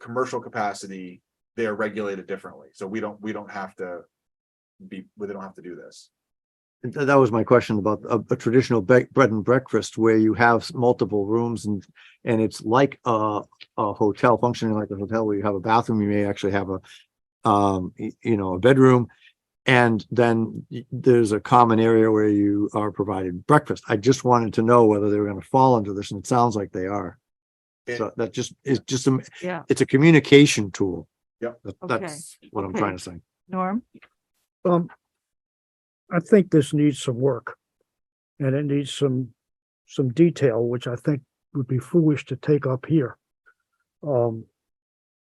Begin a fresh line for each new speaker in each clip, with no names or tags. commercial capacity, they are regulated differently. So we don't, we don't have to be, we don't have to do this.
And th- That was my question about a, a traditional bre- bread and breakfast where you have s- multiple rooms and, and it's like a, a hotel functioning like a hotel where you have a bathroom, you may actually have a, um, y- you know, a bedroom. And then y- there's a common area where you are provided breakfast. I just wanted to know whether they were going to fall under this and it sounds like they are.
It-
So that just, it's just, a
Yeah.
it's a communication tool.
Yep.
That-
Okay.
That's what I'm
Okay.
trying to say.
Norm?
Um, I think this needs some work. And it needs some, some detail, which I think would be foolish to take up here. Um,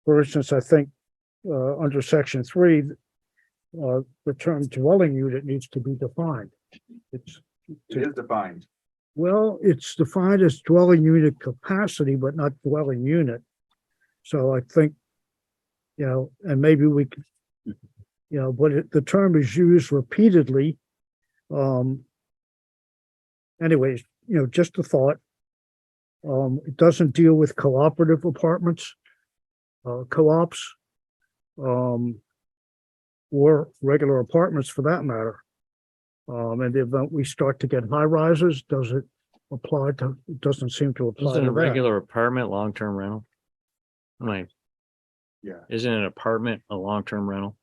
for instance, I think, uh, under section three, uh, the term dwelling unit needs to be defined. It's,
It is defined.
well, it's defined as dwelling unit capacity, but not dwelling unit. So I think, you know, and maybe we could, you know, but it- the term is used repeatedly. Um, anyways, you know, just a thought. Um, it doesn't deal with cooperative apartments, uh, co-ops, um, or regular apartments for that matter. Um, and the event we start to get high rises, does it apply to, it doesn't seem to apply
Isn't
to
it a
that.
regular apartment, long-term rental? I mean,
Yeah.
isn't an apartment a long-term rental?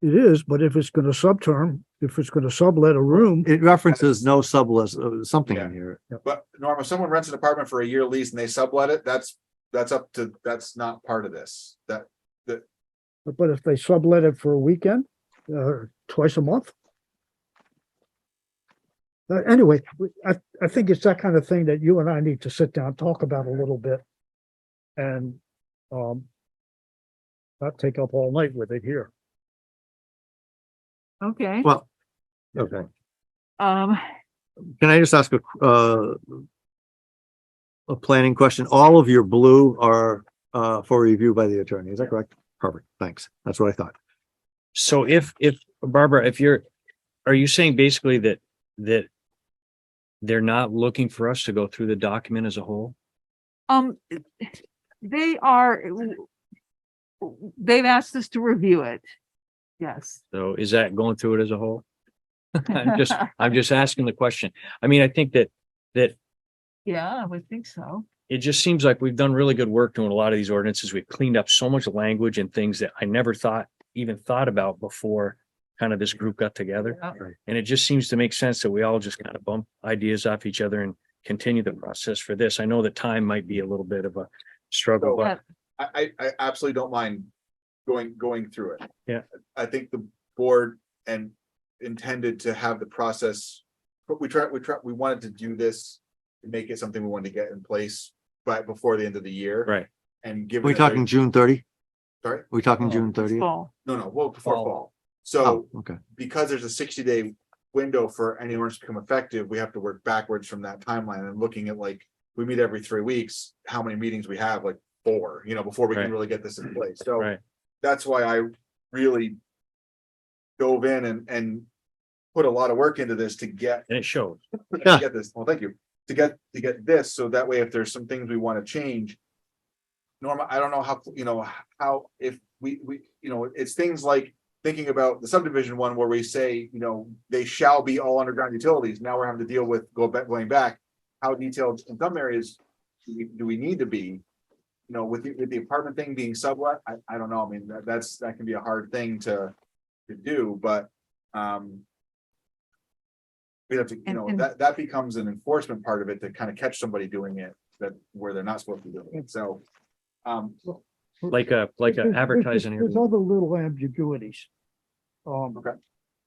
It is, but if it's gonna subterm, if it's gonna sublet a room,
It references no sublist, uh, something
Yeah.
in here.
But Norm, if someone rents an apartment for a year lease and they sublet it, that's, that's up to, that's not part of this. That,
but if they sublet it for a weekend, uh, twice a month. Uh, anyway, we- I, I think it's that kind of thing that you and I need to sit down, talk about a little bit. And, um, not take up all night with it here.
Okay,
Well, okay.
um,
Can I just ask a, qu- uh, a planning question? All of your blue are, uh, for review by the attorney. Is that correct? Perfect. Thanks. That's what I thought.
So if, if Barbara, if you're, are you saying basically that, that they're not looking for us to go through the document as a whole?
um, they are, they've asked us to review it. Yes.
So is that going through it as a whole? I'm just, I'm just asking the question. I mean, I think that, that
Yeah, I would think so.
it just seems like we've done really good work doing a lot of these ordinances. We've cleaned up so much language and things that I never thought, even thought about before kind of this group got together.
Yeah.
And it just seems to make sense that we all just kind of bump ideas off each other and continue the process for this. I know the time might be a little bit of a struggle,
So-
but
I, I, I absolutely don't mind going, going through it.
Yeah.
I think the board and intended to have the process, but we tried, we tried, we wanted to do this. to Make it something we wanted to get in place, but before the end of the year.
right.
And give.
Are we talking June thirty?
Sorry?
Are we talking
Oh,
June
It's
thirty?
full.
No, no, well, before
Fall.
fall. So
Oh, okay.
because there's a sixty day window for any ordinance to become effective, we have to work backwards from that timeline and looking at like, we meet every three weeks, how many meetings we have, like four, you know, before we can
Right.
really get this in place. So
Right.
that's why I really dove in and, and put a lot of work into this to get,
And it shows.
to
Yeah.
get this, well, thank you, to get, to get this. So that way, if there's some things we want to change, Norma, I don't know how, you know, how, if we, we, you know, it's things like thinking about the subdivision one where we say, you know, they shall be all underground utilities. Now we're having to deal with, go back, going back, how detailed in some areas do we, do we need to be? You know, with the, with the apartment thing being sublet, I, I don't know. I mean, that, that's, that can be a hard thing to, to do, but, um, we have to, you
And-
know,
and-
that, that becomes an enforcement part of it to kind of catch somebody doing it that, where they're not supposed to be doing it. So, um,
Like a, like
There's-
a
there's-
advertising.
There's
area.
other little ambiguities. Um.
Okay.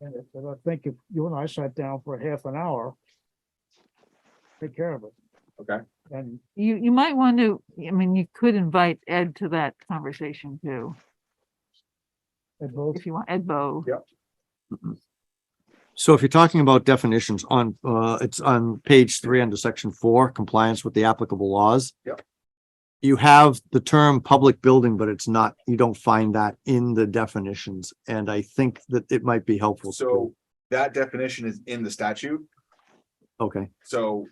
And if- and I think if you and I sat down for half an hour, take care of it.
Okay.
And
You, you might want to, I mean, you could invite Ed to that conversation too,
and both,
if you want, Ed Bo.
So if you're talking about definitions on, uh, it's on page three under section four, compliance with the applicable laws.
Yep.
You have the term public building, but it's not, you don't find that in the definitions. And I think that it might be helpful. to-
so that definition is in the statute.
Okay.
So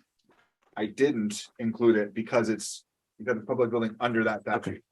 I didn't include it because it's, because it's public building under that
Okay.
statute.